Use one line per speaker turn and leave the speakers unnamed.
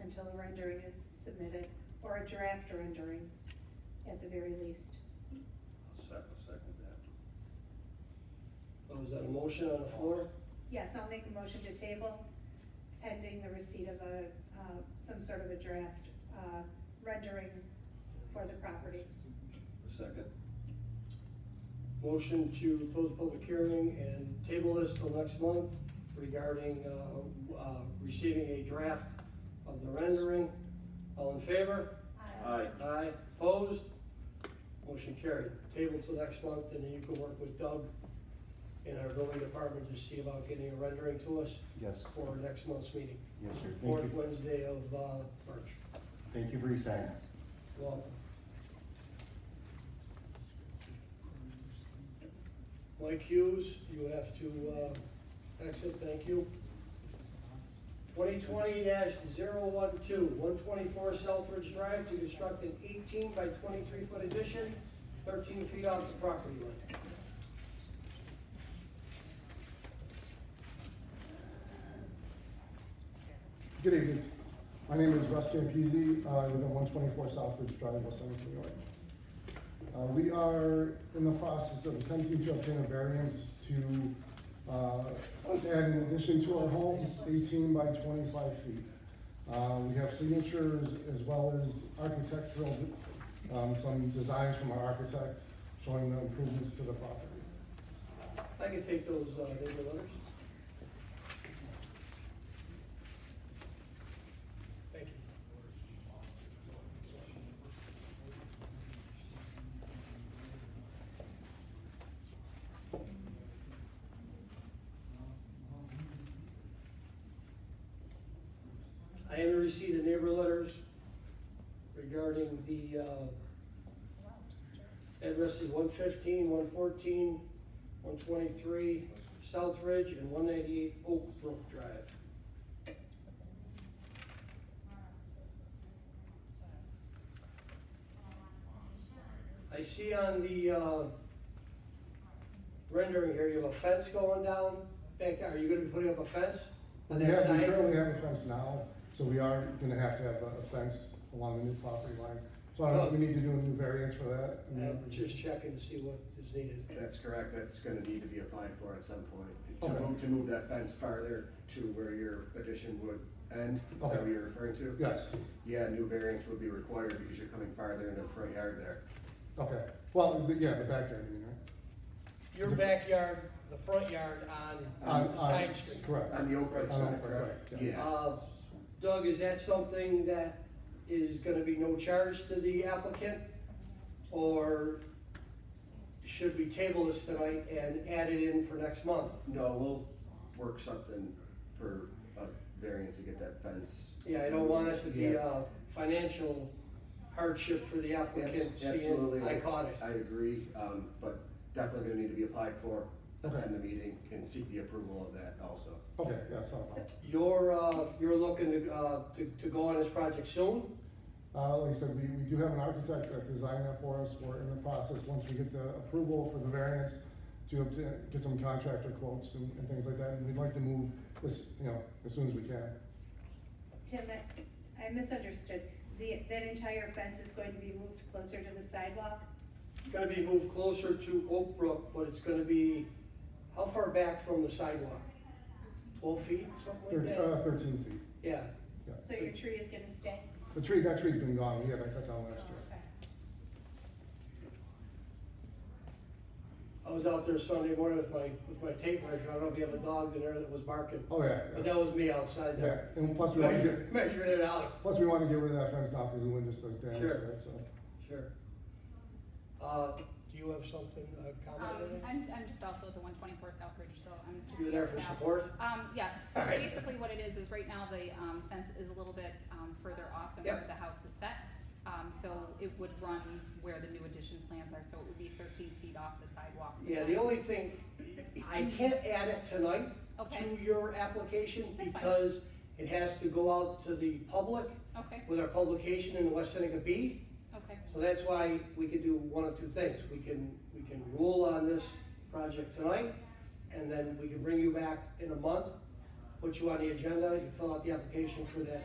until a rendering is submitted, or a draft rendering at the very least.
I'll second, second that.
Oh, is that a motion on the floor?
Yes, I'll make a motion to table pending the receipt of a, uh, some sort of a draft, uh, rendering for the property.
Second,
Motion to close public hearing and table this till next month regarding, uh, uh, receiving a draft of the rendering. All in favor?
aye,
Aye. Opposed? Motion carried. Table till next month, and then you can work with Doug in our building department to see about getting a rendering to us
Yes,
for next month's meeting,
yes, sir. Thank
fourth
you.
Wednesday of, uh, March.
Thank you for your time.
Well. Mike Hughes, you have to, uh, exit, thank you. Twenty twenty 12 124 Southridge Drive to construct an eighteen by twenty-three foot addition, thirteen feet off the property line.
Good evening. My name is Russ Campese. I live at one twenty-four Southridge Drive, West Orange, New York. Uh, we are in the process of attempting to obtain a variance to, uh, add an addition to our home, eighteen by twenty-five feet. Uh, we have signatures as well as architectural, um, some designs from our architect showing the improvements to the property.
I can take those, uh, neighbor letters. Thank you. I haven't received the neighbor letters regarding the, uh, addresses one fifteen, one fourteen, one twenty-three South Ridge and one ninety-eight Oak Brook Drive. I see on the, uh, rendering here, you have a fence going down, back, are you gonna be putting up a fence on
We
that
have,
side?
we currently have a fence now, so we are gonna have to have a fence along the new property line. So I don't know if we need to do a new variance for that. I mean,
I'm Uh, just checking to see what is needed.
That's correct, that's gonna need to be applied for at some point,
Okay.
to move, to move that fence farther to where your addition would end, is that what
Okay.
you're referring to?
Yes,
Yeah, new variance would be required because you're coming farther into the front yard there.
okay. Well, the- yeah, the backyard, you mean, right?
Your backyard, the front yard on
On-
the
on-
side street.
Correct.
On the Oak Brook
On
side,
Oak Brook,
correct?
right, yeah.
Yeah,
Uh, Doug, is that something that is gonna be no charge to the applicant? Or should we table this tonight and add it in for next month?
no, we'll work something for a variance to get that fence.
Yeah, I don't want us to be uh,
Yeah.
a financial hardship for the applicant,
Abs- Absolutely.
seeing I caught it.
I agree, um, but definitely gonna need to be applied for, attend the meeting and seek the approval of that also.
Okay, yeah, it's not a problem.
You're, uh, you're looking to, uh, to, to go on this project soon?
Uh, like I said, we, we do have an architect that designed that for us, we're in the process, once we get the approval for the variance, to obtain, get some contractor quotes and, and things like that, and we'd like to move this, you know, as soon as we can.
Tim, I- I misunderstood. The, that entire fence is going to be moved closer to the sidewalk?
It's gonna be moved closer to Oak Brook, but it's gonna be, how far back from the sidewalk? Twelve feet, something
Thirteen,
like that?
uh, thirteen feet,
Yeah,
yeah.
So your tree is gonna stay?
The tree, that tree's been gone, we had that cut down
Oh,
last year.
okay.
I was out there Sunday morning with my, with my tape measure, I don't know if you have a dog in there that was barking,
Oh, yeah,
but
yeah,
that was me outside
yeah,
there.
and plus we wanna
Measure-
get,
Measuring it out,
plus we wanna get rid of that fence now, cause the wind just does damage
Sure.
to it, so.
sure. Uh, do you have something, uh, comment on
Um,
that?
I'm, I'm just also at the one twenty-four Southbridge, so I'm just.
You're there for
yeah.
support?
Um, yes, so
All right.
basically what it is, is right now the, um, fence is a little bit, um, further off than
Yep.
where the house is set. Um, so it would run where the new addition plans are, so it would be thirteen feet off the sidewalk.
Yeah, the only thing, I can't add it tonight
Okay.
to your application
That's fine.
because it has to go out to the public
Okay,
with our publication in the West Seneca Bee.
okay,
So that's why we could do one of two things. We can, we can rule on this project tonight, and then we can bring you back in a month, put you on the agenda, you fill out the application for that